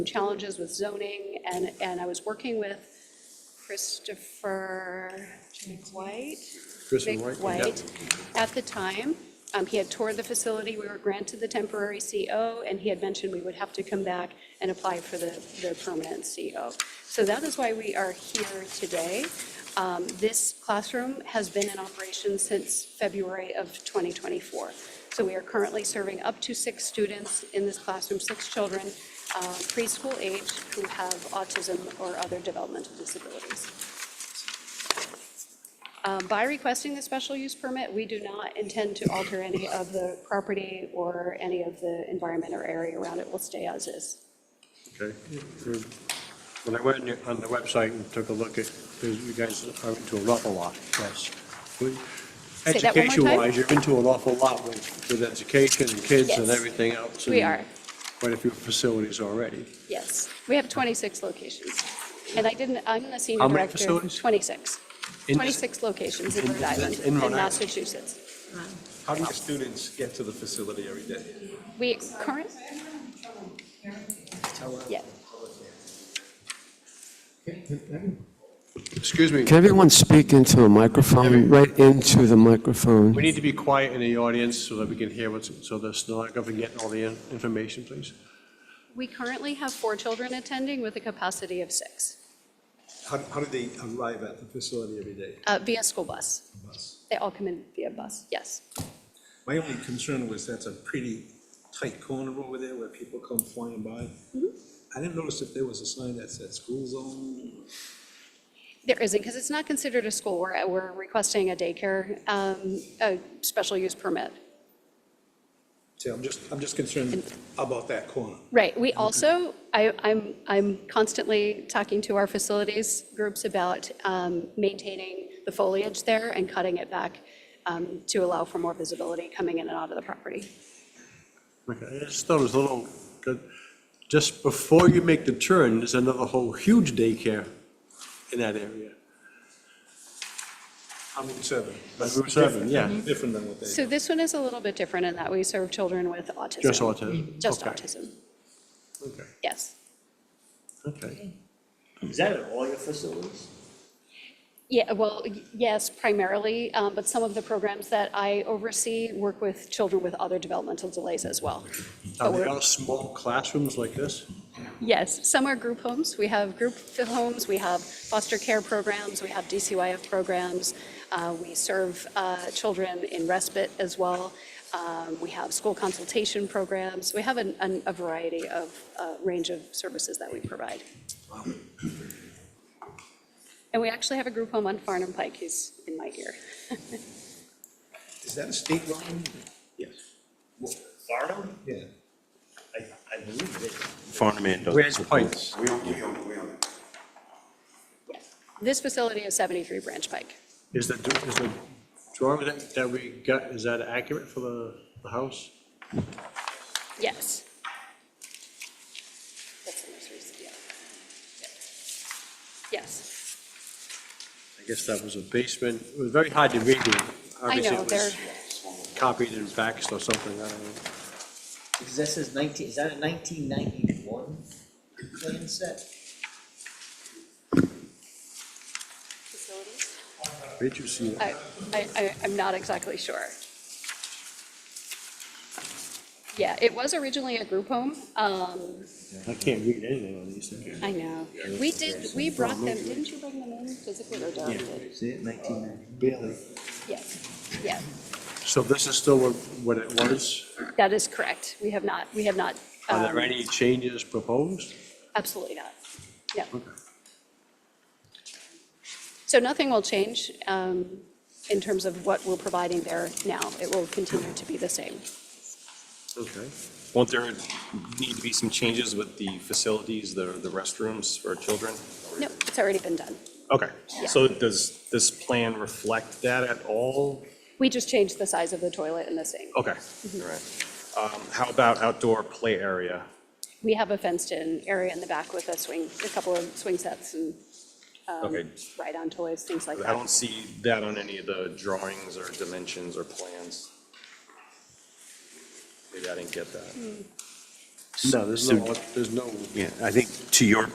challenges with zoning, and, and I was working with Christopher White. Kristen Vic White? White at the time. Um, He had toured the facility, we were granted the temporary CO, and he had mentioned we would have to come back and apply for the, the permanent CO. So that is why we are here today. Um, This classroom has been in operation since February of 2024. So we are currently serving up to six students in this classroom, six children uh, preschool age who have autism or other developmental disabilities. Um, By requesting the special use permit, we do not intend to alter any of the property or any of the environment or area around it. Will stay as is. Okay. When I went on your- on the website and took a look at, because you guys are into an awful lot, yes. Say that one more time? Education-wise, you're into an awful lot with, with education and kids and Yes. everything else. We and are. Quite a few facilities already. Yes. We have 26 locations. And I didn't, I'm the senior How director. many facilities? 26. In- 26 locations in in- Rhode Island, in in Rhode Island. Massachusetts. How do your students get to the facility every day? We current? Yeah. Excuse me, Can everyone speak into a microphone, right into the microphone? we need to be quiet in the audience so that we can hear what's, so the stenographer can get all the in- information, please. We currently have four children attending with a capacity of six How, how do they arrive at the facility every day? uh, via school bus. Bus. They all come in via bus, yes. My only concern was that's a pretty tight corner over there where people come flying by. Mm-hmm. I didn't notice if there was a sign that said school zone. There isn't, because it's not considered a school. We're, we're requesting a daycare, um, a special use permit. See, I'm just, I'm just concerned about that corner. Right, we also, I, I'm, I'm constantly talking to our facilities groups about um, maintaining the foliage there and cutting it back um, to allow for more visibility coming in and out of the property. Okay, I just thought it was a little, good. just before you make the turn, there's another whole huge daycare in that area. I'm in seven. Like Route seven, yeah. Different than what they. So this one is a little bit different in that we serve children with autism. Just autism? Just Okay. autism, Okay, yes. okay. Is that at all your facilities? Yeah, well, y- yes, primarily, um, but some of the programs that I oversee work with children with other developmental delays as well. Are But they we're- all small classrooms like this? Yes, some are group homes. We have group fi- homes, we have foster care programs, we have DCYF programs. uh, We serve uh, children in respite as well. Um, We have school consultation programs. We have an- an- a variety of, uh, range of services that we provide. And we actually have a group home on Farnham Pike, he's in my ear. Is that a state line? Yes. Farnham? Yeah. I, I believe it is. Farnham and Dover. Where's Pikes? We own, we own, we own it. Yes. This facility is 73 Branch Pike. Is the, is the drawing that, that we got, is that accurate for the, the house? Yes. That's the most recent, yeah. Yeah. Yes, I guess that was a basement, it was very hard to read. it. I Obviously, know, it they're, was copied and faxed or something, I don't know. Because that says nineteen, is that a nineteen ninety-one plan set? facilities? Did you see that? I, I, I- I'm not exactly sure. Yeah, it was originally a group home. Um, I can't read anything on these things. I know. We did, we brought them, didn't you bring them in physically or Darren did? See it, nineteen ninety? Barely. Yes, yeah, So this is still what, what it was? that is correct. We have not, we have not. Are there um, any changes proposed? Absolutely not. No. Okay. So nothing will change um, in terms of what we're providing there now. It will continue to be the same. Okay. Won't there need to be some changes with the facilities, the, the restrooms for children? No, it's already been done. Okay, Yeah. so does this plan reflect that at all? We just changed the size of the toilet and the sink. Okay, all right. Um, How about outdoor play area? We have a fenced-in area in the back with a swing, a couple of swing sets and um, Okay, ride-on toys, things like I don't that. see that on any of the drawings or dimensions or plans. Maybe I didn't get that. No, there's So- no, there's no Yeah, I think to your